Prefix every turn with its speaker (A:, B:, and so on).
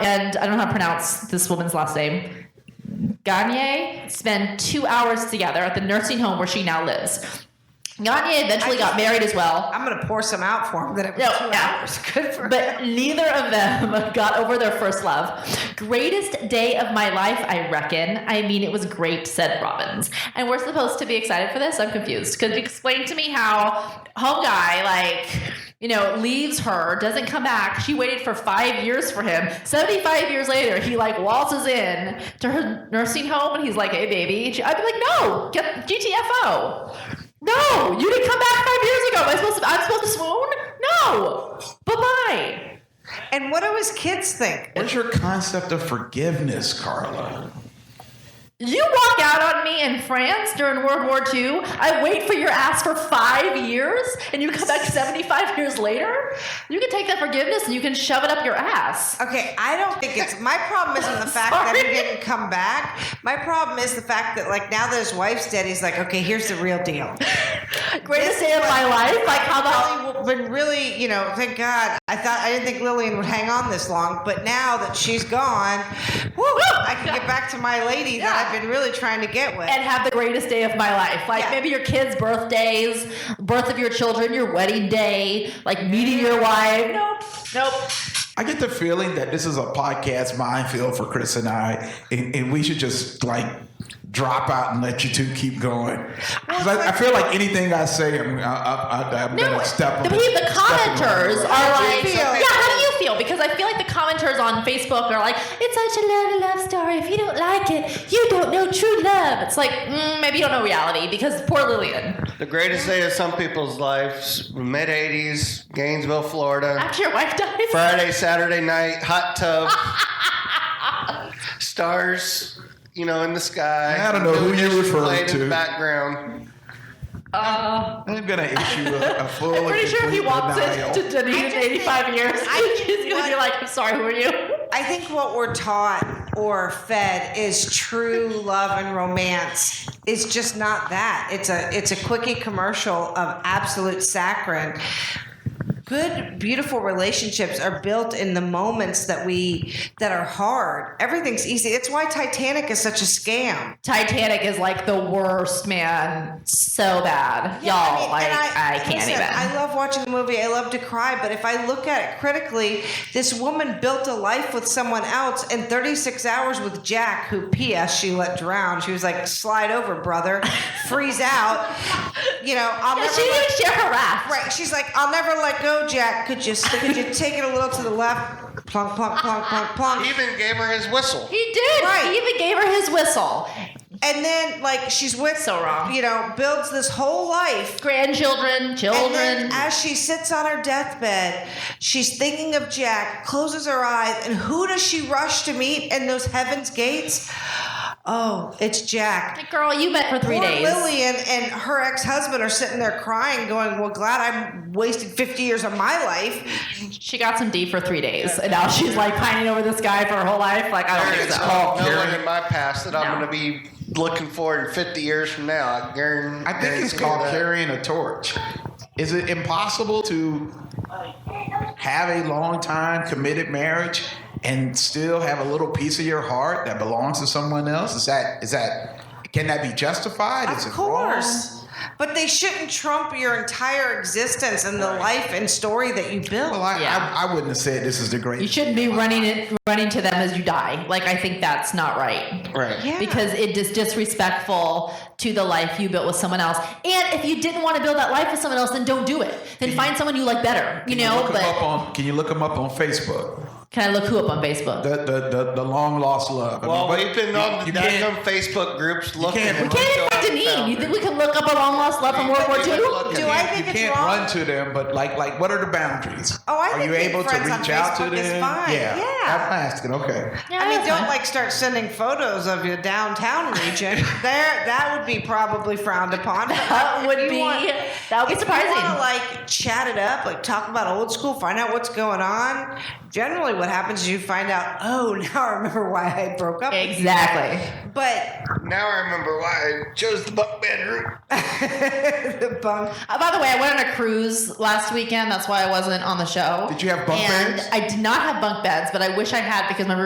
A: and I don't know how to pronounce this woman's last name. Gagne spent two hours together at the nursing home where she now lives. Gagne eventually got married as well,
B: I'm gonna pour some out for him. That it was
A: No, no.
B: two hours. Good for him.
A: but neither of them got over their first love. Greatest day of my life, I reckon. I mean, it was great, said Robbins. And we're supposed to be excited for this? I'm confused. Could you explain to me how home guy, like, you know, leaves her, doesn't come back. She waited for five years for him. 75 years later, he like waltzes in to her nursing home and he's like, hey, baby. And she- I'd be like, no, get GTFO. No, you didn't come back five years ago. Am I supposed to, I'm supposed to swoon? No. Bye bye.
B: And what do his kids think?
C: What's your concept of forgiveness, Carla?
A: You walk out on me in France during World War II. I wait for your ass for five years, and you come back 75 years later. You can take that forgiveness and you can shove it up your ass.
B: Okay, I don't think it's my problem isn't the fact that he
A: Sorry.
B: didn't come back. My problem is the fact that like now that his wife's dead, he's like, okay, here's the real deal.
A: Greatest day of my life. Like how about
B: Lily would really, you know, thank God. I thought I didn't think Lillian would hang on this long, but now that she's gone, woo, I can get back to my lady that
A: Yeah.
B: I've been really trying to get with.
A: and have the greatest day of my life. Like
B: Yeah.
A: maybe your kids' birthdays, birth of your children, your wedding day, like meeting your wife. Nope. Nope.
C: I get the feeling that this is a podcast minefield for Chris and I, and, and we should just like drop out and let you two keep going. 'Cause I, I feel like anything I say, I'm, I, I, I'm
A: No,
C: gonna step.
A: the,
C: on-
A: people, the
C: step on-
A: commenters are
B: How do you
A: like,
B: feel?
A: yeah, how do you feel? Because I feel like the commenters on Facebook are like, it's such a lovely love story. If you don't like it, you don't know true love. It's like, mm, maybe you don't know reality because poor Lillian.
D: The greatest day of some people's lives, mid 80s, Gainesville, Florida.
A: After your wife dies,
D: Friday, Saturday night, hot tub. stars, you know, in the sky.
C: I don't know who you're
D: Musicians
C: referring
D: played in the
C: to.
D: background.
A: uh,
C: I'm gonna issue a, a full.
A: I'm pretty
C: and
A: sure if he
C: complete
A: walks
C: denial.
A: into Denise in
B: just
A: 85
B: think-
A: years,
B: I
A: he's going to be
B: what-
A: like, I'm sorry, who are you?
B: I think what we're taught or fed is true love and romance is just not that. It's a it's a quickie commercial of absolute saccharin. Good, beautiful relationships are built in the moments that we that are hard. Everything's easy. It's why Titanic is such a scam.
A: Titanic is like the worst, man. So bad.
B: I
A: Y'all,
B: mean,
A: like,
B: and
A: I, can't
B: listen,
A: even.
B: I love watching the movie. I love to cry, but if I look at it critically, this woman built a life with someone else in 36 hours with Jack, who P.S. she let drown. She was like, "Slide over, brother, freeze out." You know, I'll
A: Yeah,
B: never.
A: she didn't
B: let-
A: even share her wrath.
B: right? She's like, "I'll never let go, Jack. Could you could you take it a little to the left? Plunk, plunk, plunk, plunk, plunk."
D: He even gave her his whistle.
A: He did.
B: Right.
A: He even gave her his whistle.
B: And then, like, she's with
A: So wrong.
B: You know, builds this whole life
A: Grandchildren, children.
B: And then as she sits on her deathbed, she's thinking of Jack, closes her eyes, and who does she rush to meet in those heaven's gates? Oh, it's Jack.
A: Like, Girl, you met for three
B: Poor
A: days.
B: Lillian and her ex-husband are sitting there crying, going, "Well, glad I wasted 50 years of my life."
A: She got some D for three days, and now she's like pining over this guy for her whole life. Like I don't think
D: It's
A: so.
C: called
D: no one
C: Karen.
D: in my past that I'm
A: No.
D: going to be looking for in 50 years from now. I guarantee.
C: I think it's called
D: that.
C: carrying a torch. Is it impossible to have a long time committed marriage and still have a little piece of your heart that belongs to someone else? Is that is that can that be justified? is
B: of
C: it
B: course. But they shouldn't trump your entire existence and the life and story that you built.
C: Wrong? Well, I,
A: Yeah.
C: I, I wouldn't have said this is the great.
A: You shouldn't be running it, running to them as you die. Like I think that's not right.
D: Right.
B: Yeah.
A: Because it is disrespectful to the life you built with someone else. And if you didn't want to build that life with someone else, then don't do it. Then find someone you like better. You
C: Can
A: know.
C: look 'em up
A: But
C: on, can you look them up on Facebook?
A: can I look who up on Facebook?
C: The the the, the long lost love. I
D: Well,
C: mean, but
D: we've been
C: you-
D: on the
C: you can't-
D: Dacum Facebook groups looking.
C: can't-
D: at
C: We
A: Can't even find Deneen. You think we can look up a long lost love from World War II?
B: Do I think
C: you
B: it's
C: can't
B: wrong?
C: run to them, but like, like, what are the boundaries?
B: Oh, I
C: are
B: think
C: you
B: being
C: able to
B: friends on
C: reach out to
B: Facebook
C: them?
B: is fine.
C: Yeah,
B: Yeah.
C: I'm asking. Okay,
A: Yeah,
B: I mean,
A: that's
B: don't
A: fine.
B: like start sending photos of your downtown region. there, that would be probably frowned upon.
A: That would
B: If you
A: be
B: want-
A: that would be
B: if You want
A: surprising.
B: to like chat it up, like talk about old school, find out what's going on. Generally, what happens is you find out. Oh, now I remember why I broke up. with you."
A: Exactly.
B: But
D: Now I remember why I chose the bunk bed route.
B: the bunk.
A: Uh, by the way, I went on a cruise last weekend. That's why I wasn't on the show.
C: Did you have bunk
A: and
C: beds?
A: I did not have bunk beds, but I wish I had because my